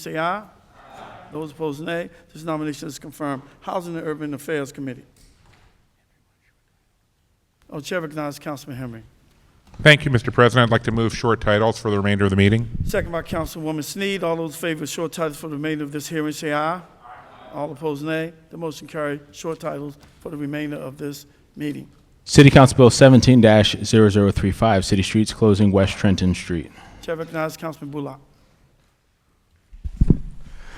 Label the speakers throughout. Speaker 1: say aye. Those opposed, nay. This nomination is confirmed. Housing and Urban Affairs Committee. Oh, Chair recognizes Councilman Henry.
Speaker 2: Thank you, Mr. President. I'd like to move short titles for the remainder of the meeting.
Speaker 1: Second by Councilwoman Sneed. All those in favor of short titles for the remainder of this hearing, say aye. All opposed, nay. The motion carries. Short titles for the remainder of this meeting.
Speaker 3: City Council Bill 17 0035, City Streets Closing West Trenton Street.
Speaker 1: Chair recognizes Councilman Bullock.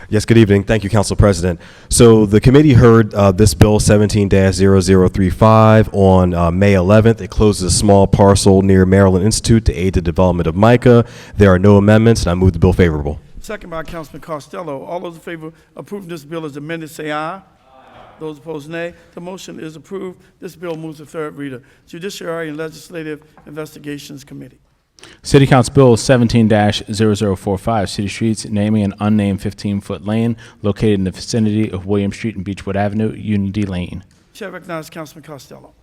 Speaker 4: Yes, good evening. Thank you, Council President. So the committee heard uh, this bill 17-0035 on uh, May 11th. It closes a small parcel near Maryland Institute to aid the development of MICA. There are no amendments, and I move the bill favorable.
Speaker 1: Second by Councilman Costello. All those in favor of approving this bill as amended, say aye. Those opposed, nay. The motion is approved. This bill moves to third reader. Judiciary and Legislative Investigations Committee.
Speaker 3: City Council Bill 17 0045, City Streets Naming an Unnamed 15-Foot Lane Located in the Vicinity of William Street and Beechwood Avenue, Unity Lane.
Speaker 1: Chair recognizes Councilman Costello.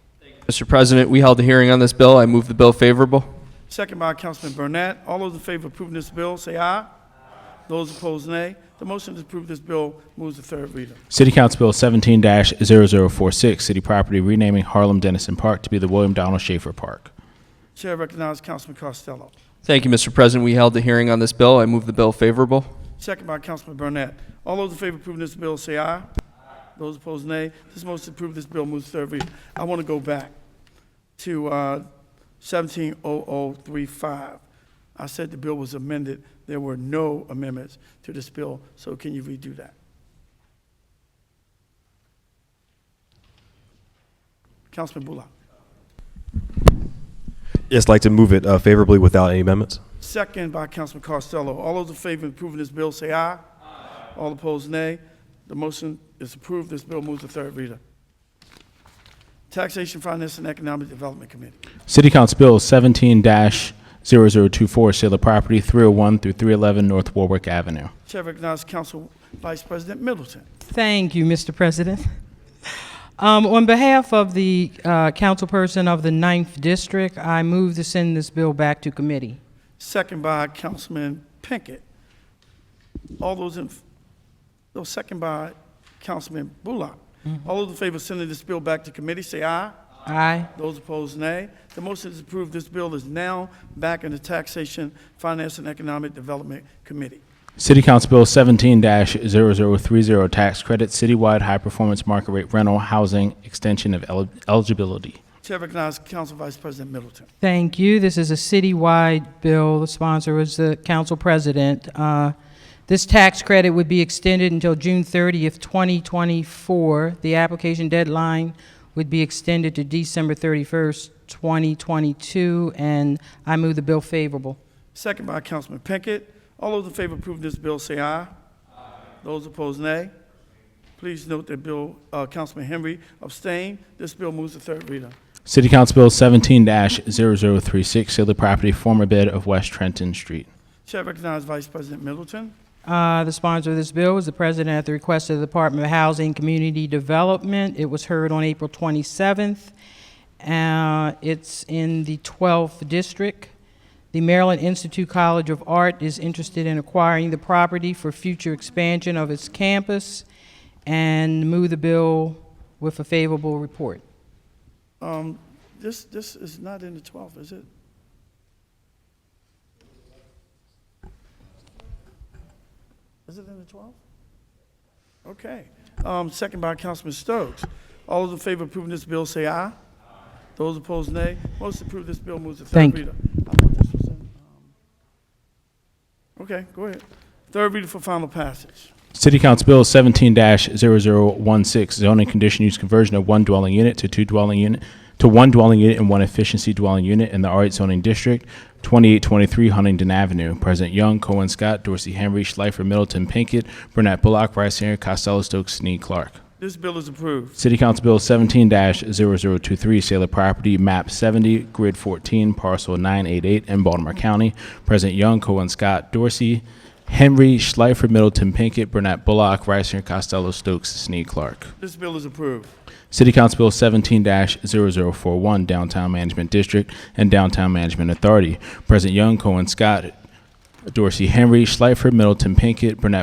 Speaker 5: Mr. President, we held a hearing on this bill. I move the bill favorable.
Speaker 1: Second by Councilman Burnett. All those in favor of approving this bill, say aye. Those opposed, nay. The motion to approve this bill moves to third reader.
Speaker 3: City Council Bill 17 0046, City Property Renaming Harlem Dennison Park to be the William Donald Schaefer Park.
Speaker 1: Chair recognizes Councilman Costello.
Speaker 5: Thank you, Mr. President. We held a hearing on this bill. I move the bill favorable.
Speaker 1: Second by Councilman Burnett. All those in favor of approving this bill, say aye. Those opposed, nay. This motion to approve this bill moves to third reader. I want to go back to uh, 170035. I said the bill was amended. There were no amendments to this bill, so can you redo that? Councilman Bullock.
Speaker 4: Yes, like to move it uh, favorably without any amendments.
Speaker 1: Second by Councilman Costello. All those in favor of approving this bill, say aye. All opposed, nay. The motion is approved. This bill moves to third reader. Taxation, Finance, and Economic Development Committee.
Speaker 3: City Council Bill 17 0024, Sale of Property 301 through 311 North Warwick Avenue.
Speaker 1: Chair recognizes Council Vice President Middleton.
Speaker 6: Thank you, Mr. President. Um, On behalf of the uh, councilperson of the Ninth District, I move to send this bill back to committee.
Speaker 1: Second by Councilman Pinkett. All those in, no, second by Councilman Bullock. All those in favor of sending this bill back to committee, say aye.
Speaker 6: Aye.
Speaker 1: Those opposed, nay. The motion is approved. This bill is now back in the Taxation, Finance, and Economic Development Committee.
Speaker 3: City Council Bill 17 0030, Tax Credit Citywide High Performance Market Rate Rental Housing Extension of Eli- Eligibility.
Speaker 1: Chair recognizes Council Vice President Middleton.
Speaker 6: Thank you. This is a citywide bill. The sponsor was the council president. Uh, This tax credit would be extended until June 30th, 2024. The application deadline would be extended to December 31st, 2022, and I move the bill favorable.
Speaker 1: Second by Councilman Pinkett. All those in favor of approving this bill, say aye. Those opposed, nay. Please note that Bill, uh, Councilman Henry abstained. This bill moves to third reader.
Speaker 3: City Council Bill 17 0036, Sale of Property Former Bid of West Trenton Street.
Speaker 1: Chair recognizes Vice President Middleton.
Speaker 6: Uh, The sponsor of this bill was the president at the request of the Department of Housing and Community Development. It was heard on April 27th. Uh, It's in the 12th District. The Maryland Institute College of Art is interested in acquiring the property for future expansion of its campus and move the bill with a favorable report.
Speaker 1: Um, This, this is not in the 12th, is it? Is it in the 12th? Okay. Um, Second by Councilman Stokes. All those in favor of approving this bill, say aye. Those opposed, nay. Most approve this bill moves to third
Speaker 6: Thank you.
Speaker 1: reader. I thought this was in, um, Okay, go ahead. Third reader for final passage.
Speaker 3: City Council Bill 17 0016, Zoning Condition Use Conversion of One Dwelling Unit to Two Dwelling Unit, to One Dwelling Unit and One Efficiency Dwelling Unit in the R8 Zoning District, 2823 Huntington Avenue. President Young, Cohen Scott, Dorsey Henry, Schleifer, Middleton, Pinkett, Burnett, Bullock, Rice, Henry, Costello, Stokes, Snead, Clark.
Speaker 1: This bill is approved.
Speaker 3: City Council Bill 17 0023, Sale of Property, Map 70, Grid 14, Parcel 988 in Baltimore County. President Young, Cohen Scott, Dorsey, Henry, Schleifer, Middleton, Pinkett, Burnett, Bullock, Ricer, Costello, Stokes, Snead, Clark.
Speaker 1: This bill is approved.
Speaker 3: City Council Bill 17 0041, Downtown Management District and Downtown Management Authority. President Young, Cohen Scott, Dorsey, Henry, Schleifer, Middleton, Pinkett, Burnett,